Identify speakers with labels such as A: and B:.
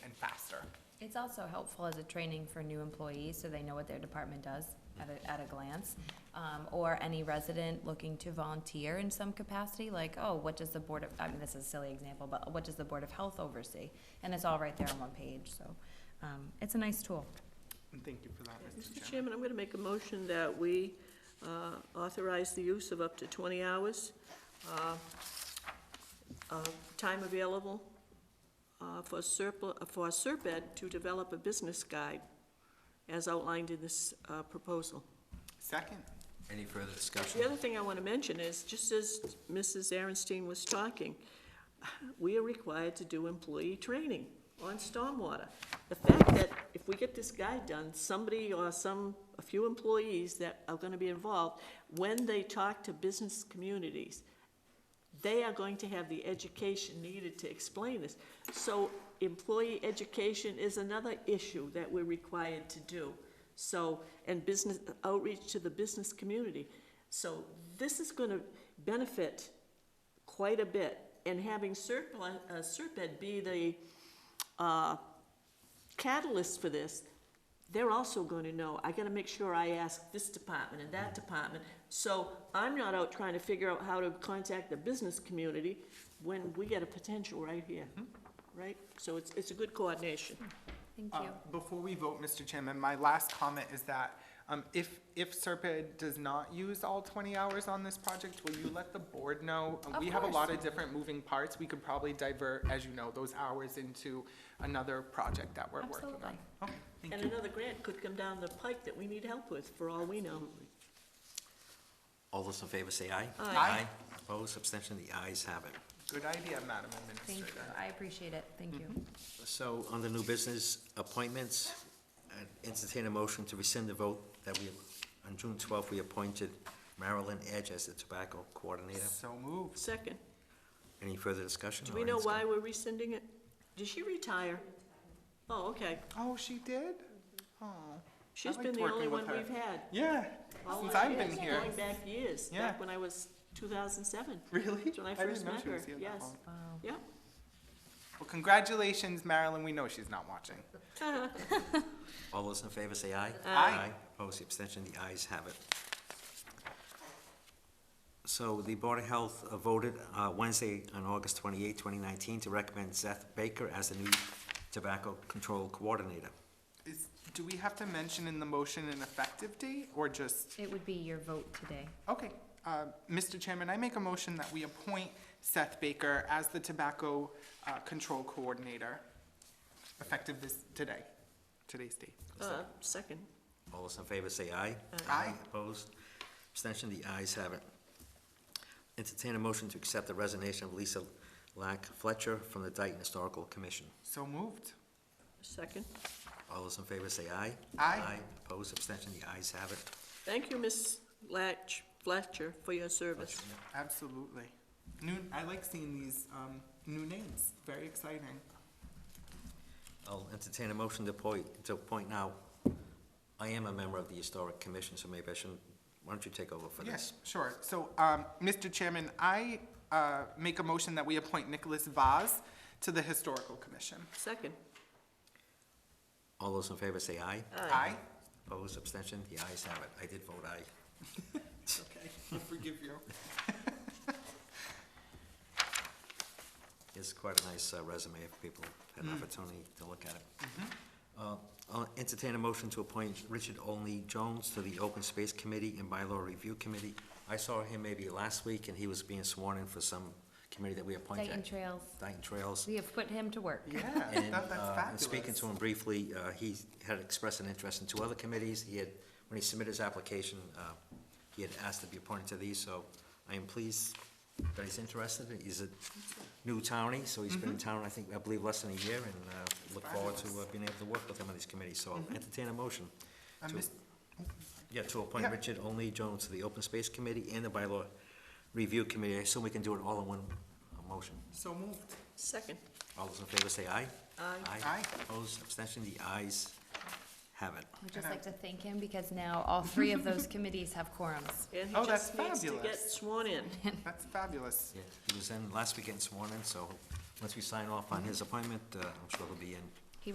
A: It's also helpful as a training for new employees, so they know what their department does at a, at a glance. Um, or any resident looking to volunteer in some capacity, like, oh, what does the Board of, I mean, this is a silly example, but what does the Board of Health oversee? And it's all right there on one page, so, um, it's a nice tool.
B: And thank you for that,
C: Mr. Chairman, I'm going to make a motion that we uh, authorize the use of up to 20 hours, uh, of time available uh, for Serp, for Serped to develop a business guide as outlined in this uh, proposal.
B: Second,
D: Any further discussion?
C: The other thing I want to mention is, just as Mrs. Aaronstein was talking, we are required to do employee training on stormwater. The fact that if we get this guide done, somebody or some, a few employees that are going to be involved, when they talk to business communities, they are going to have the education needed to explain this. So employee education is another issue that we're required to do. So, and business, outreach to the business community. So this is gonna benefit quite a bit. And having Serpent, uh, Serpent be the, uh, catalyst for this, they're also going to know, I gotta make sure I ask this department and that department. So I'm not out trying to figure out how to contact the business community when we get a potential right here,
B: Mm-hmm.
C: right? So it's, it's a good coordination.
A: Thank
B: uh,
A: you.
B: before we vote, Mr. Chairman, my last comment is that, um, if, if Serpent does not use all twenty hours on this project, will you let the board know? Uh,
A: Of
B: We have a
A: course.
B: lot of different moving parts, we could probably divert, as you know, those hours into another project that we're working on. Oh,
A: Absolutely.
B: Okay, thank
C: And
B: you.
C: another grant could come down the pike that we need help with, for all we know.
D: All those in favor say aye.
B: Aye.
D: Opposed, abstention, the ayes have it.
B: Good idea, Madam
A: Thank you.
B: Administrator.
A: I appreciate it. Thank you.
B: Mm-hmm.
D: So on the new business appointments, I'd entertain a motion to rescind the vote that we, on June twelfth, we appointed Marilyn Edge as the tobacco coordinator.
B: So moved.
C: Second,
D: Any further discussion?
C: do we
D: or
C: know
D: any
C: why we're rescinding it? Did she retire? Oh, okay.
B: Oh, she did?
A: Mm-hmm.
B: Oh,
C: She's been
B: liked
C: the only
B: working
C: one
B: with her.
C: we've had.
B: yeah,
C: all
B: since
C: our
B: I've been
C: years,
B: here.
C: Going back years,
B: Yeah.
C: back when I was two thousand seven.
B: Really?
C: That's when I
B: didn't
C: first
B: know
C: met
B: she
C: her,
B: was here that
C: yes.
B: long.
A: Wow.
C: Yeah,
B: Well, congratulations, Marilyn, we know she's not watching.
D: discussion? All those in favor say aye.
B: Aye.
D: Opposed, the abstention, the ayes have it. So the Board of Health uh, voted uh, Wednesday on August 28, 2019, to recommend Seth Baker as the new tobacco control coordinator.
B: Is, do we have to mention in the motion an effective date, or just,
A: It would be your vote today.
B: okay. Uh, Mr. Chairman, I make a motion that we appoint Seth Baker as the Tobacco, uh, Control Coordinator, effective this, today, today's date.
C: uh, second.
D: All those in favor say aye.
B: Aye.
D: Opposed? Abstention? The ayes have it. Entertain a motion to accept the resignation of Lisa Lack Fletcher from the Dayton Historical Commission.
B: So moved.
C: Second.
D: All those in favor say aye.
B: Aye.
D: Opposed? Abstention? The ayes have it.
C: Thank you, Miss Latch Fletcher, for your service.
B: Absolutely. New, I like seeing these, um, new names, very exciting.
D: I'll entertain a motion to appoint, to appoint now. I am a member of the Historic Commission, so maybe I shouldn't, why don't you take over for this?
B: Yes, sure. So, um, Mr. Chairman, I, uh, make a motion that we appoint Nicholas Vaz to the Historical Commission.
C: Second.
D: All those in favor say aye.
B: Aye.
D: Opposed? Abstention? The ayes have it. I did vote aye.
B: Okay, I forgive you.
D: It's quite a nice uh, resume if people had an opportunity to look at it. Uh, I'll entertain a motion to appoint Richard Olney Jones to the Open Space Committee and Bylaw Review Committee. I saw him maybe last week, and he was being sworn in for some committee that we appointed.
A: Dayton Trails,
D: Dayton Trails.
A: we have put him to work.
B: Yeah,
D: And,
B: that, that's
D: uh, and
B: fabulous.
D: speaking to him briefly, uh, he had expressed an interest in two other committees. He had, when he submitted his application, uh, he had asked to be appointed to these, so I am pleased that he's interested. He's a new townie, so he's
B: Mm-hmm.
D: been in town, I think, I believe, less than a year, and uh, look forward to uh, being able to work with him on these committees. So
B: Mm-hmm.
D: I'll entertain a motion.
B: Uh,
D: to-
B: Mis-
D: Yeah, to appoint
B: Yeah.
D: Richard Only Jones to the Open Space Committee and the Bylaw Review Committee. I assume we can do it all in one uh, motion.
B: So moved.
C: Second.
D: All those in favor say aye.
C: Aye.
B: Aye.
D: Opposed, abstention, the ayes have it.
A: We'd just like to thank him because now all three of those committees have quorums.
C: And he
B: Oh, that's
C: just needs to get
B: fabulous.
C: sworn in.
B: That's fabulous.
D: Yeah, He was in last weekend sworn in, so once we sign off on his appointment, uh, I'm sure he'll be in